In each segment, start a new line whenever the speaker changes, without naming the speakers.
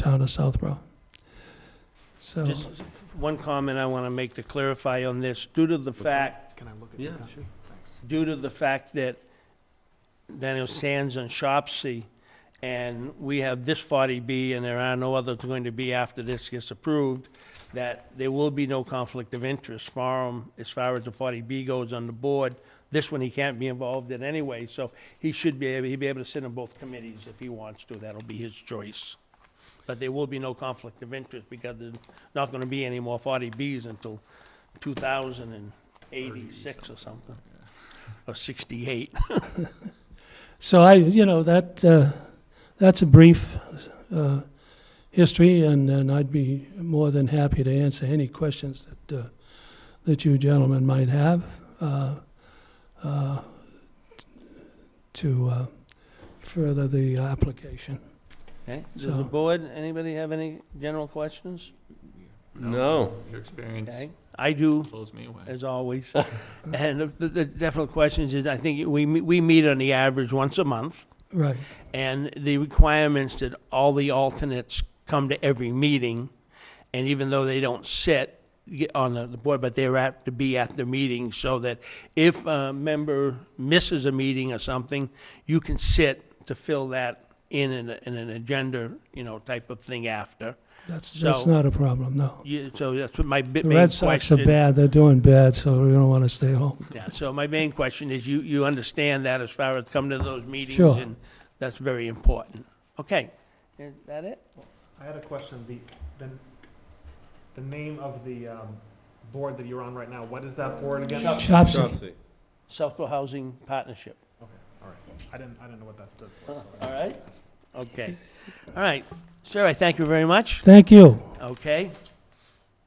town of Southborough. So,
Just one comment I want to make to clarify on this, due to the fact,
Can I look at?
Yeah,
that?
sure.
Thanks.
due to the fact that Daniel Sands and Shopsy, and we have this 40B, and there are no others going to be after this gets approved, that there will be no conflict of interest for him as far as the 40B goes on the board. This one, he can't be involved in anyway, so he should be, able he'd be able to sit on both committees if he wants to. That'll be his choice. But there will be no conflict of interest because there's not going to be any more 40Bs until 2086 or something, or 68.
so I, you know, that, uh, that's a brief, uh, history, and, and I'd be more than happy to answer any questions that, uh, that you gentlemen might have, uh, uh, to, uh, further the application.
Okay, does
So-
the board, anybody have any general questions?
No.
Your experience
Okay, I do,
blows me away.
as always. And the- the the definite questions is, I think we, me- we meet on the average once a month,
Right,
and the requirements that all the alternates come to every meeting, and even though they don't sit get on the the board, but they're apt to be at the meeting, so that if a member misses a meeting or something, you can sit to fill that in an, in an agenda, you know, type of thing after.
that's, that's
So-
not a problem, no.
Yeah, so that's what my bi-
The
main
Red Sox are
question.
bad, they're doing bad, so we don't want to stay home.
Yeah, so my main question is, you, you understand that as far as coming to those meetings?
Sure.
And that's very important. Okay, is that it?
I had a question, the, the, the name of the, um, board that you're on right now, what is that board again?
Shop-
Shopsy,
Chopsy.
Southborough Housing Partnership,
I didn't, I didn't know what that stood for, so.
all right? Okay, all right. Sir, I thank you very much.
thank you.
Okay.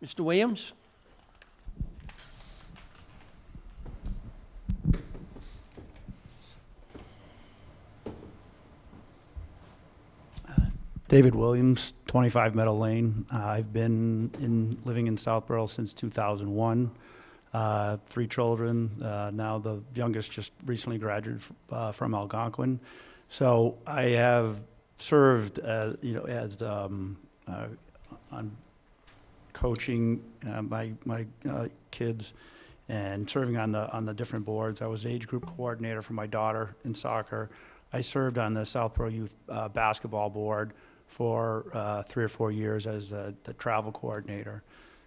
Mr. Williams?
David Williams, 25 Meadow Lane. Uh, I've been in, living in Southborough since 2001. Uh, Three children, uh, now the youngest just recently graduated f- uh, from Algonquin. So I have served, uh, you know, as, um, uh, on coaching uh, my, my uh, kids and serving on the, on the different boards. I was age group coordinator for my daughter in soccer. I served on the Southborough Youth uh, Basketball Board for uh, three or four years as the, the travel coordinator.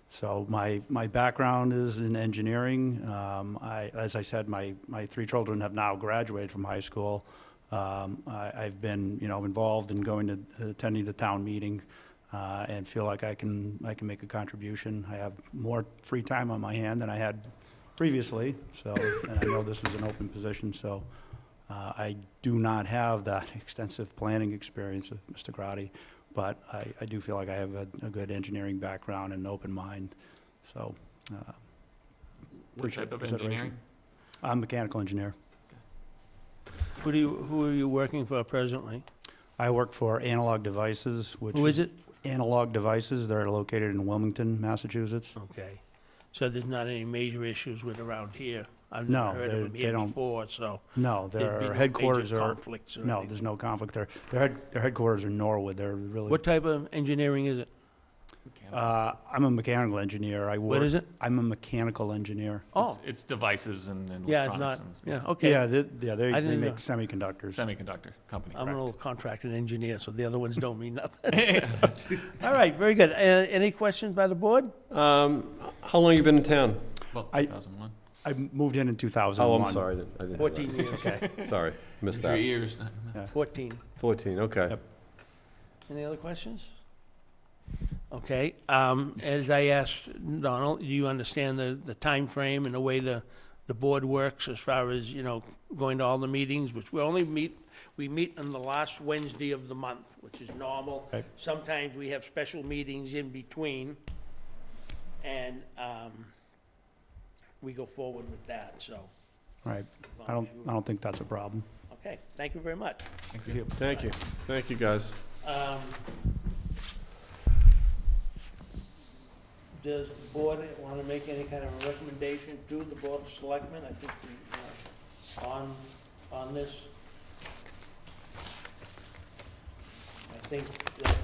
So my, my background is in engineering. Um, I, as I said, my, my three children have now graduated from high school. Um, I, I've been, you know, involved in going to, attending the town meeting uh, and feel like I can, I can make a contribution. I have more free time on my hand than I had previously, so, and I know this is an open position, so uh, I do not have that extensive planning experience of Mr. Grotti, but I, I do feel like I have a, a good engineering background and an open mind, so. uh,
What
appreciate
type
the
of
consideration.
engineering?
I'm a mechanical engineer.
Who do you, who are you working for presently?
I work for Analog Devices, which.
Who is it?
Analog Devices, they're located in Wilmington, Massachusetts.
Okay, so there's not any major issues with around here? I've
No,
never heard
they-
of them
they
here
don't-
before, so
No,
there'd be no
their
major
headquarters are,
conflicts or
no,
anything.
there's no conflict there. Their head, their headquarters are Norwood, they're really.
What type of engineering is it?
Uh, I'm a mechanical engineer, I work.
What is it?
I'm a mechanical engineer.
Oh,
It's- It's devices and and
yeah,
electronics
not,
and
yeah, okay.
Yeah, they, yeah, they,
I
they
didn't
make
know.
semiconductors.
semiconductor company.
I'm an
Correct.
old contracted engineer, so the other ones don't mean nothing. All right, very good. Uh, Any questions by the board?
Um, how long you been in town?
Well,
I-
2001.
I moved in in two thousand and
Oh,
one.
I'm sorry. I didn't- I didn't have that.
14 years,
Okay,
Sorry, missed
Three
that.
years.
14.
14, okay.
Yep.
Any other questions? Okay, um, as I asked Donald, do you understand the, the timeframe and the way the, the board works as far as, you know, going to all the meetings, which we only meet, we meet on the last Wednesday of the month, which is normal.
Okay.
Sometimes we have special meetings in between, and, um, we go forward with that, so.
All right.
as long
I don't,
as you-
I don't think that's a problem.
Okay, thank you very much.
Thank you.
Thank you, thank you, guys.
Um, Does the board want to make any kind of a recommendation to the board of selectmen? I think we, uh, on, on this. I think that um,